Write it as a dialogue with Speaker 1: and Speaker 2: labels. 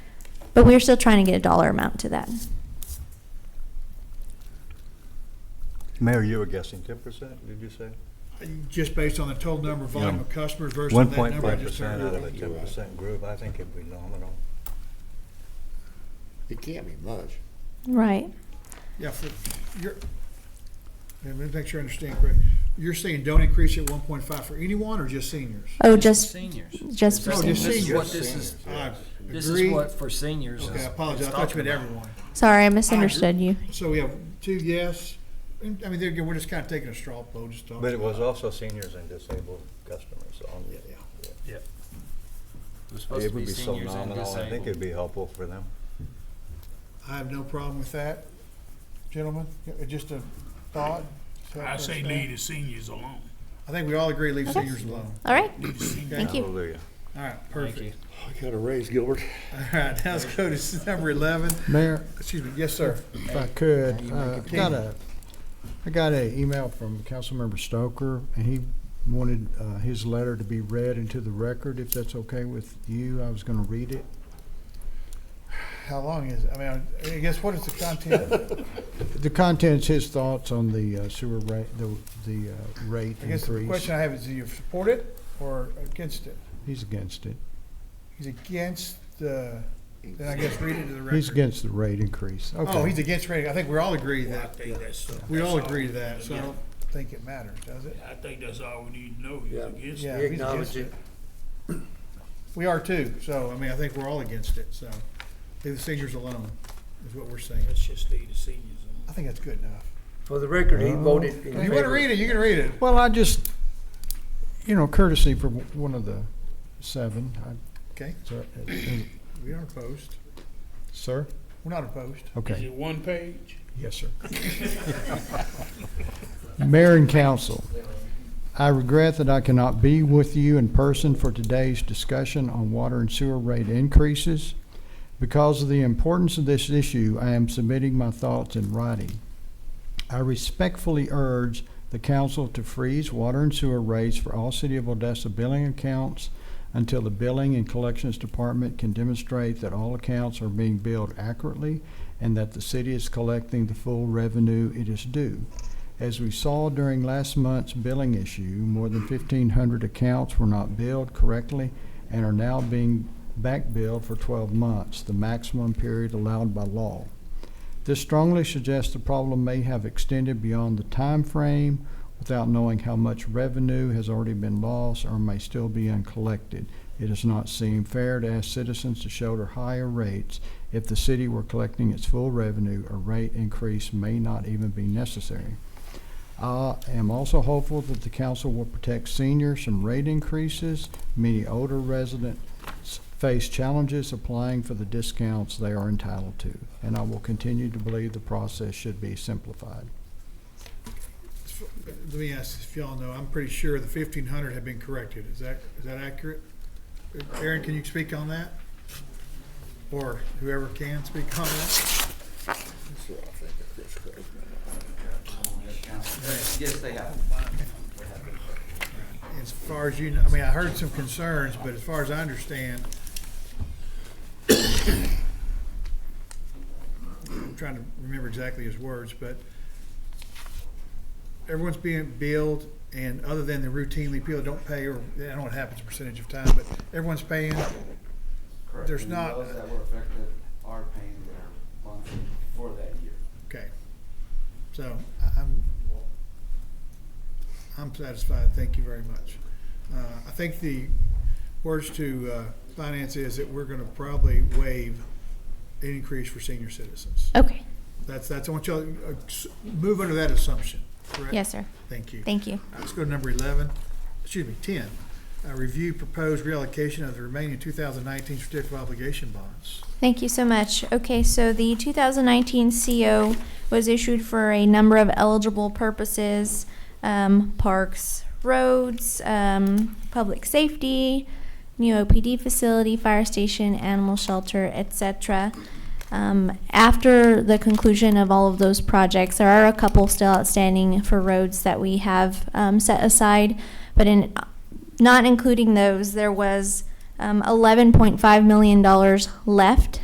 Speaker 1: But we're still trying to get a dollar amount to that.
Speaker 2: Mayor, you were guessing ten percent, did you say?
Speaker 3: Just based on the total number of volume
Speaker 2: Yeah.
Speaker 3: of customers versus
Speaker 2: One
Speaker 3: that number.
Speaker 2: point
Speaker 3: I
Speaker 2: five
Speaker 3: just
Speaker 2: percent
Speaker 3: heard.
Speaker 2: out of a ten percent group, I think it'd be nominal.
Speaker 4: It can't be much.
Speaker 1: Right.
Speaker 3: Yeah, for, you're, yeah, let me make sure I understand correct. You're saying don't increase it one point five for anyone or just seniors?
Speaker 1: Oh, just,
Speaker 5: Seniors.
Speaker 1: just for
Speaker 3: Oh,
Speaker 1: seniors.
Speaker 3: just
Speaker 5: This is
Speaker 3: seniors.
Speaker 5: what this is,
Speaker 3: I
Speaker 5: this is
Speaker 3: agree.
Speaker 5: what for seniors.
Speaker 3: Okay,
Speaker 5: is-
Speaker 3: I apologize. I
Speaker 5: it's
Speaker 3: thought you
Speaker 5: talking
Speaker 3: meant
Speaker 5: about.
Speaker 3: everyone.
Speaker 1: Sorry, I misunderstood you.
Speaker 3: So we have two yes, and, I mean, there again, we're just kind of taking a straw poll, just talking.
Speaker 2: But it was also seniors and disabled customers on.
Speaker 3: Yeah, yeah.
Speaker 5: It was supposed
Speaker 2: It
Speaker 5: to
Speaker 2: would
Speaker 5: be
Speaker 2: be so
Speaker 5: seniors and
Speaker 2: nominal, I think
Speaker 5: disabled.
Speaker 2: it'd be helpful for them.
Speaker 3: I have no problem with that, gentlemen. It- Just a thought.
Speaker 6: I say leave the seniors alone.
Speaker 3: I think we all agree leave
Speaker 1: Okay.
Speaker 3: seniors alone.
Speaker 1: All right.
Speaker 6: Leave the seniors.
Speaker 1: Thank you.
Speaker 2: Hallelujah.
Speaker 3: All right,
Speaker 5: Thank
Speaker 3: perfect.
Speaker 5: you.
Speaker 4: I got a raise, Gilbert.
Speaker 3: All right, now let's go to number eleven.
Speaker 7: Mayor,
Speaker 3: Excuse me, yes, sir.
Speaker 7: if I could, uh, I got a, I got a email from Councilmember Stoker, and he wanted uh, his letter to be read into the record, if that's okay with you. I was gonna read it.
Speaker 3: How long is, it? I mean, I guess what is the content?
Speaker 7: The contents, his thoughts on the uh, sewer rate, the, the uh, rate
Speaker 3: I guess the
Speaker 7: increase.
Speaker 3: question I have is, do you support it or against it?
Speaker 7: He's against it.
Speaker 3: He's against the, then I guess read it to the record.
Speaker 7: He's against the rate increase.
Speaker 3: Oh, he's
Speaker 7: Okay.
Speaker 3: against rating. I think we all agree
Speaker 6: I
Speaker 3: that.
Speaker 6: think that's.
Speaker 3: We all
Speaker 6: that's
Speaker 3: agree
Speaker 6: we
Speaker 3: to that,
Speaker 6: need
Speaker 3: so I don't
Speaker 6: know.
Speaker 3: think it matters, does it?
Speaker 6: I think that's all we need to know, he's
Speaker 4: Yeah.
Speaker 6: against
Speaker 3: Yeah,
Speaker 6: it.
Speaker 4: We
Speaker 3: he's against
Speaker 4: acknowledge
Speaker 3: it. We are too, so, I mean, I think we're all against it, so leave the seniors alone, is what we're saying.
Speaker 6: Let's just leave the seniors alone.
Speaker 3: I think that's good enough.
Speaker 4: For the record, he voted in
Speaker 3: If you wanna read it, you can read it.
Speaker 7: Well, I just, you know, courtesy for one of the seven, I,
Speaker 3: Okay,
Speaker 7: so-
Speaker 3: we aren't opposed.
Speaker 7: sir?
Speaker 3: We're not opposed.
Speaker 6: Is
Speaker 7: Okay.
Speaker 6: it one page?
Speaker 7: Yes, sir. Mayor and council, I regret that I cannot be with you in person for today's discussion on water and sewer rate increases. Because of the importance of this issue, I am submitting my thoughts in writing. I respectfully urge the council to freeze water and sewer rates for all City of Odessa billing accounts until the Billing and Collections Department can demonstrate that all accounts are being billed accurately and that the city is collecting the full revenue it is due. As we saw during last month's billing issue, more than fifteen hundred accounts were not billed correctly and are now being back billed for twelve months, the maximum period allowed by law. This strongly suggests the problem may have extended beyond the time frame without knowing how much revenue has already been lost or may still be uncollected. It does not seem fair to ask citizens to shoulder higher rates if the city were collecting its full revenue, a rate increase may not even be necessary. I am also hopeful that the council will protect seniors from rate increases. Many older residents face challenges applying for the discounts they are entitled to, and I will continue to believe the process should be simplified.
Speaker 3: Let me ask if y'all know, I'm pretty sure the fifteen hundred had been corrected. Is that, is that accurate? Aaron, can you speak on that? Or whoever can speak on that?
Speaker 8: Yes, they have.
Speaker 3: As far as you know, I mean, I heard some concerns, but as far as I understand, I'm trying to remember exactly his words, but everyone's being billed and other than the routinely people that don't pay or, I don't know what happens percentage of time, but everyone's paying.
Speaker 8: Correct.
Speaker 3: There's
Speaker 8: And
Speaker 3: not-
Speaker 8: Those that were affected are paying their monthly for that year.
Speaker 3: Okay. So I- I'm, I'm satisfied. Thank you very much. Uh, I think the words to uh, finance is that we're going to probably waive an increase for senior citizens.
Speaker 1: Okay.
Speaker 3: That's, that's, I want y'all to uh, s- move under that assumption, correct?
Speaker 1: Yes, sir.
Speaker 3: Thank you.
Speaker 1: Thank you.
Speaker 3: Let's go to number eleven, excuse me, ten. Uh, Review proposed reallocation of the remaining two thousand nineteen certificate of obligation bonds.
Speaker 1: Thank you so much. Okay, so the 2019 CO was issued for a number of eligible purposes, um, parks, roads, um, public safety, new OPD facility, fire station, animal shelter, etc. Um, after the conclusion of all of those projects, there are a couple still outstanding for roads that we have um, set aside, but in not including those, there was um, $11.5 million left